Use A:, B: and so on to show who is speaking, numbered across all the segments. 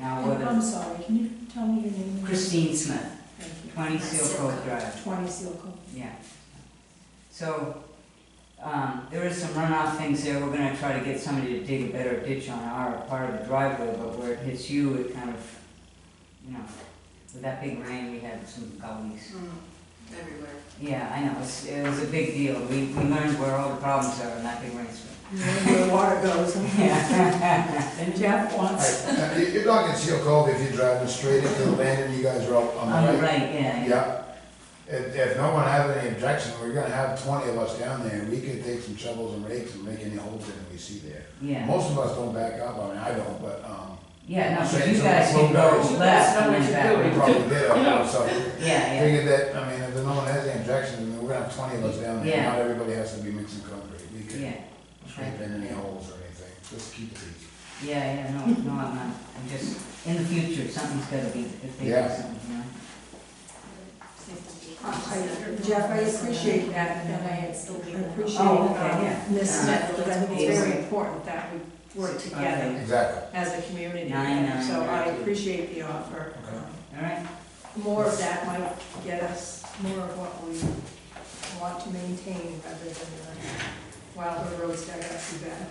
A: Oh, I'm sorry, can you tell me your name?
B: Christine Smith,
A: Thank you.
B: 20 Seal Cove Drive,
A: Twenty Silco.
B: yeah. So, um, there is some runoff things there, we're gonna try to get somebody to dig a better ditch on our part of the driveway, but where it hits you, it kind of, you know, with that big rain, we had some gullies.
C: Mm,
D: Everywhere.
B: Yeah, I know, it's, it was a big deal, we, we learned where all the problems are in that big rainstorm.
A: Where the water goes.
B: Yeah.
A: And Jeff wants,
E: Right, uh, you- You're not gonna see a cove if you're driving straight into the land and you guys are out on
B: On
E: the
B: the
E: right.
B: right, yeah, yeah.
E: Yeah. If, if no one has any objection, we're gonna have twenty of us down there, we can take some shovels and rakes and make any holes that we see there.
B: yeah.
E: Most of us don't back up, I mean, I don't, but, um,
B: Yeah, no,
E: So
B: so
E: it's
B: you
E: a
B: guys
E: slow
B: can go left
E: down.
D: That's not
B: and
D: what
B: then
D: you're
E: we
B: back.
E: probably did, I so.
B: Yeah, yeah,
E: Figured that, I mean, if no one has any objection, then we're gonna have twenty of us down there,
B: Yeah.
E: not everybody has to be mixing concrete, we
B: yeah.
E: can scrape in any holes or anything, just keep it easy.
B: Yeah, yeah, no, no, I'm not, I'm just, in the future, something's gotta be, if they do
E: Yeah.
B: something, you know?
A: I- Jeff, I appreciate that, and I appreciate
B: Oh, okay, yeah.
A: um, Ms. Smith, because I think it's very important that we work together
B: Okay.
E: Exactly,
A: as a community.
B: Nine, nine,
A: So I
B: nine.
A: appreciate the offer.
E: Okay.
B: Alright,
A: More of that might get us more of what we want to maintain rather than uh, the wilder roads that got too bad.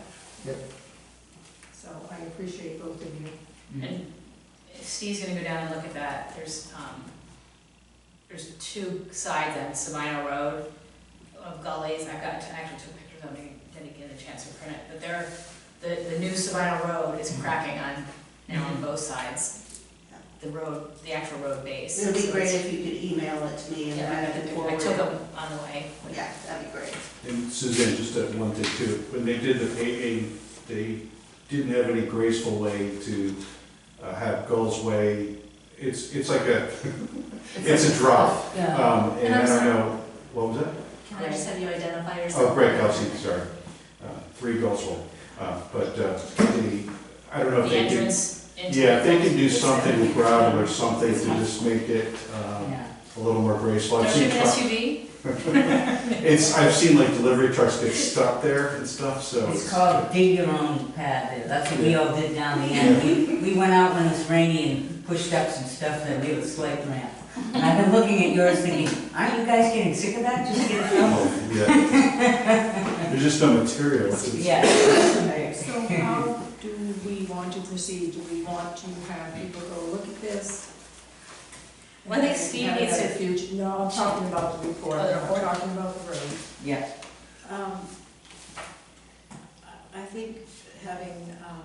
E: Yep.
A: So I appreciate both of you.
B: Mm.
D: And Steve's gonna go down and look at that, there's, um, there's two sides on Sabino Road of gullies, I've got, I actually took pictures of them, didn't get a chance to print it, but they're, the, the new Sabino Road
F: Mm-hmm.
D: is cracking on, now on both sides. The road, the actual road base.
C: It would be
D: So
C: great
D: it's-
C: if you could email it to me and
D: Yeah,
C: then I
D: I
C: can
D: took- I
C: forward
D: took
C: it.
D: them on the way.
C: Yeah, that'd be great.
F: And Suzanne, just that one thing too, when they did the paving, they didn't have any graceful way to uh, have Gull's Way, it's, it's like a, it's a drop.
B: Yeah.
F: Um,
D: And
F: and
D: I'm
F: I don't
D: sorry.
F: know, what was that?
D: Can I just have you identify yourself?
F: Oh, Greg Kelsey, sorry, uh, three Gull's Way, uh, but, uh, the, I don't know if
D: The
F: they can.
D: entrance into.
F: Yeah, if they
D: the-
F: can do something with gravel or something to just make it, um,
B: Yeah,
F: a little more graceful. I've
D: Don't you
F: seen
D: have an
F: trucks,
D: SUV?
F: it's, I've seen like delivery trucks get stuck there and stuff, so.
B: it's called dig your own pad there, that's what we all did down the end. We, we went out when it was rainy and pushed up some stuff that we would slight ramp. And I've been looking at yours thinking, aren't you guys getting sick of that, just get it out?
F: Oh, yeah. There's just no material. It's- it's-
B: Yeah.
A: So how do we want to proceed? Do we want to have people go look at this?
D: Well, I think Steve
A: Have
D: needs to-
A: another future- No, I'm talking about the report,
D: Oh, the
A: I'm
D: report.
A: talking about the road.
B: Yeah,
C: Um, I I think having, um,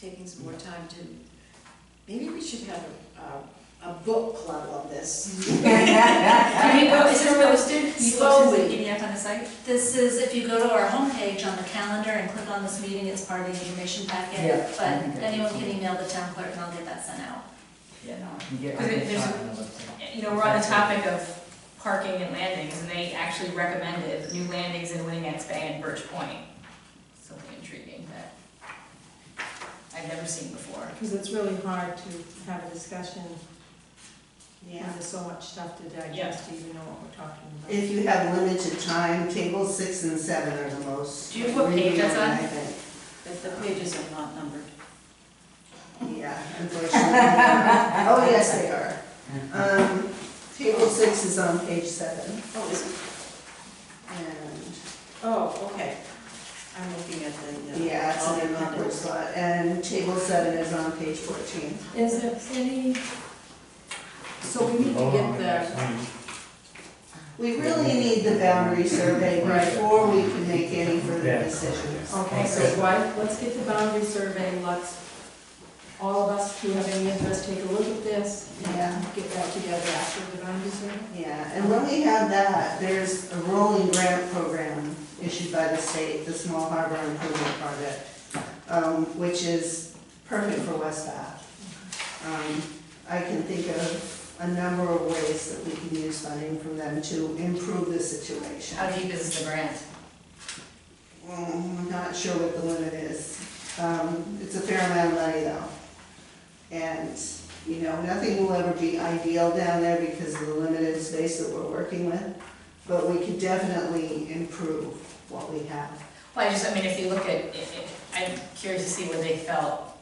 C: taking some more time to, maybe we should have a, a, a book club on this.
D: Can we post, is this posted?
C: You
D: Slowly.
C: posted it.
D: Getting up on the site?
G: This is, if you go to our homepage on the calendar and click on this meeting, it's part of the information
B: Yeah.
G: packet. But anyone can email the town clerk and I'll get that sent out.
B: yeah, no, I can get
D: Because
B: what you're
D: there's a-
B: talking about.
D: You know, we're on the topic of parking and landings, and they actually recommended new landings in Winnetts Bay and Birch Point. Something intriguing that I've never seen before.
A: Because it's really hard to have a discussion when
C: Yeah.
A: there's so much stuff to digest, to even know what we're talking about.
C: If you have limited time, tables six and seven are the most.
D: Do you have what page that's on?
C: I think.
D: But the pages are not numbered.
C: Yeah, unfortunately. Oh, yes, they are. Um, Table six is on page seven. Oh, is it? And,
A: Oh, okay.
C: I'm looking at the.
A: uh,
C: Yeah, it's in the numbered slot, and table seven is on page fourteen.
A: Is there any, so we need to get the,
C: We really need the boundary survey
A: Right.
C: before we can make any further decisions.
A: okay, so why, let's get the boundary survey, let's, all of us who have any interest, take a look at this.
C: Yeah.
A: Get that together after the boundary survey.
C: Yeah, and when we have that, there's a rolling grant program issued by the state, the Small Harbor Improvement Project, um, which is perfect for West Bath. Um, I can think of a number of ways that we can use funding from them to improve the situation.
D: How deep is the grant?
C: Mm, I'm not sure what the limit is. Um, It's a fair amount of money though. And, you know, nothing will ever be ideal down there because of the limited space that we're working with. But we can definitely improve what we have.
D: Well, I just, I mean, if you look at, i- i- I'm curious to see where they felt